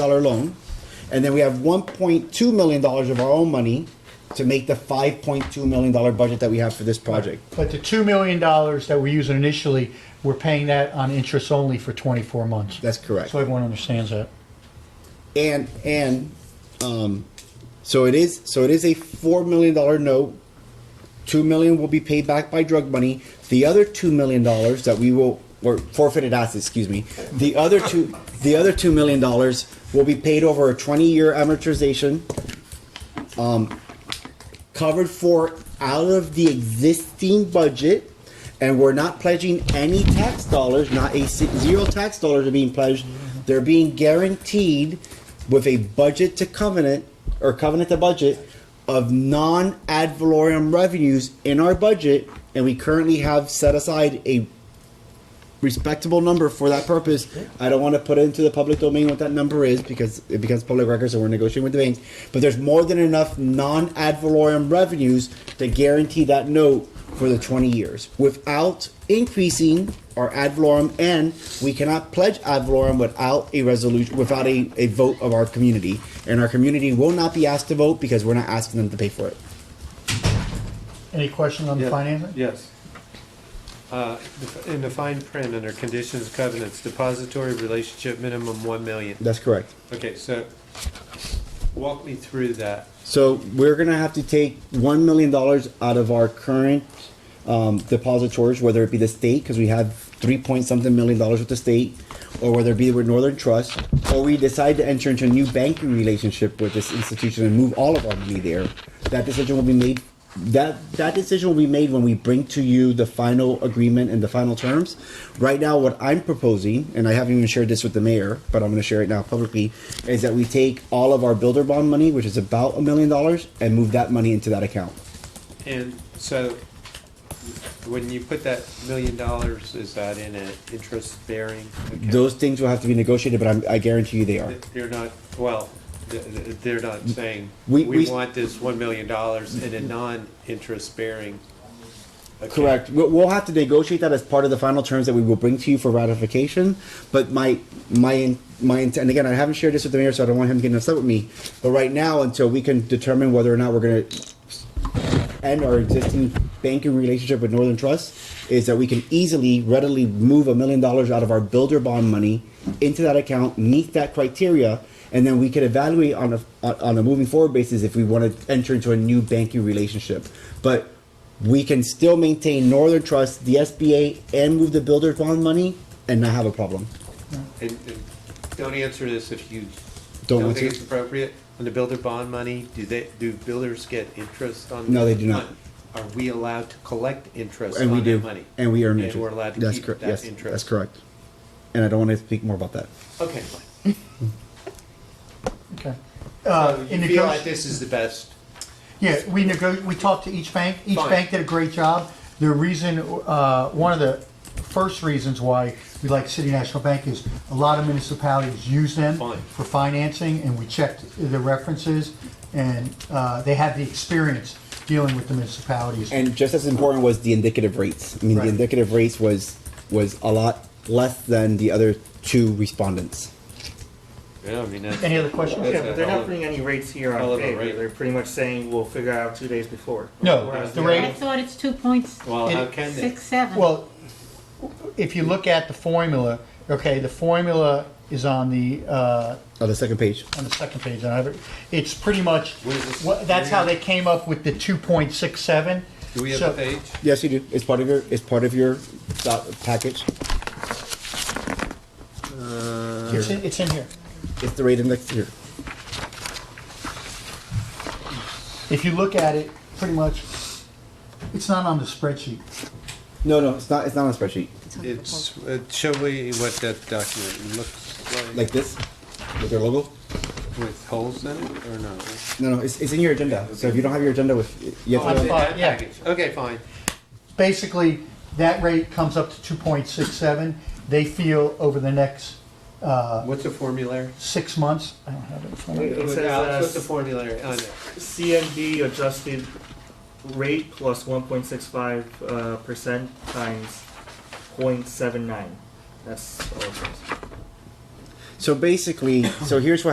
dollar loan, and then we have one point two million dollars of our own money to make the five point two million dollar budget that we have for this project. But the $2 million that we're using initially, we're paying that on interest only for 24 months. That's correct. So everyone understands that. And and um, so it is so it is a four million dollar note. Two million will be paid back by drug money. The other two million dollars that we will or forfeited assets, excuse me. The other two the other two million dollars will be paid over a twenty year amortization. covered for out of the existing budget, and we're not pledging any tax dollars, not a si- zero tax dollars are being pledged. They're being guaranteed with a budget to covenant or covenant to budget of non ad valorem revenues in our budget, and we currently have set aside a respectable number for that purpose. I don't want to put it into the public domain what that number is because it becomes public record, so we're negotiating with the banks. But there's more than enough non ad valorem revenues to guarantee that note for the 20 years without increasing our ad valorem, and we cannot pledge ad valorem without a resolution, without a, a vote of our community. And our community will not be asked to vote because we're not asking them to pay for it. Any questions on the Yeah, financing? Yes. Uh, In the fine print under conditions covenants, depository relationship minimum 1 million. That's correct. Okay, so walk me through that. So we're gonna have to take one million dollars out of our current um, depositors, whether it be the state, because we have three point something million dollars with the state, or whether it be with Northern Trust, or we decide to enter into a new banking relationship with this institution and move all of our money there. That decision will be made. That that decision will be made when we bring to you the final agreement and the final terms. Right now, what I'm proposing, and I haven't even shared this with the mayor, but I'm going to share it now publicly, is that we take all of our builder bond money, which is about a million dollars, and move that money into that account. And so when you put that million dollars, is that in an interest bearing? account? Those things will have to be negotiated, but I'm, I guarantee you they are. They're not, well, th- th- they're not saying, We- we we- want this $1 million in a non-interest bearing. account." Correct. We'll, we'll have to negotiate that as part of the final terms that we will bring to you for ratification. But my my my intent, and again, I haven't shared this with the mayor, so I don't want him getting upset with me. But right now, until we can determine whether or not we're going to end our existing banking relationship with Northern Trust, is that we can easily, readily move a million dollars out of our builder bond money into that account, meet that criteria. And then we could evaluate on a on on a moving forward basis if we want to enter into a new banking relationship. But we can still maintain Northern Trust, the SBA, and move the builder bond money and not have a problem. And, and don't answer this if you Don't don't think answer. it's appropriate. On the builder bond money, do they, do builders get interest on? No, they do not. Are we allowed to collect interest And we on their do, money? and we earn interest. And we're allowed to That's keep cor- that yes, interest? That's correct. And I don't want to speak more about that. Okay, fine. Okay. So Uh, in you feel negoti- like this is the best, Yeah, we nego, we talked to each bank. Each Fine. bank did a great job. The reason, uh, one of the first reasons why we like City National Bank is a lot of municipalities use them Fine. for financing, and we checked the references, and uh, they have the experience dealing with the municipalities. And just as important was the indicative rates. I mean, Right. the indicative rates was was a lot less than the other two respondents. yeah, I mean, that's. Any other questions? that's Yeah, a but they're hell not of- putting any rates here Hell on of a favor. rate. They're pretty much saying we'll figure out two days before. No, Whereas the the rate- I thought it's two points Well, uh, how It- can they? six seven. Well, if you look at the formula, okay, the formula is on the, uh, On the second page, on the second page, and I have it, it's pretty much, What is this? what- that's how they came up with the two point six seven. Do we have a page? yes, you do. It's part of your it's part of your doc- package. It's in, it's in here. It's the rate index here. If you look at it, pretty much, it's not on the spreadsheet. No, no, it's not. It's not on a spreadsheet It's, uh, show me what that document looks like like this with their logo. with holes in it or no? No, no, it's, it's in your agenda. So if you don't have your agenda with, you have to Oh, it's go- in fine, that Uh, yeah. package. Okay, fine. Basically, that rate comes up to two point six seven. They feel over the next uh, What's the formulary? six months, I don't have it in front of me. It says, Alex, uh, What's the formulary oh, on it? CMB adjusted rate plus one point six five, uh, percent times point seven nine. That's all it says. So basically, so here's what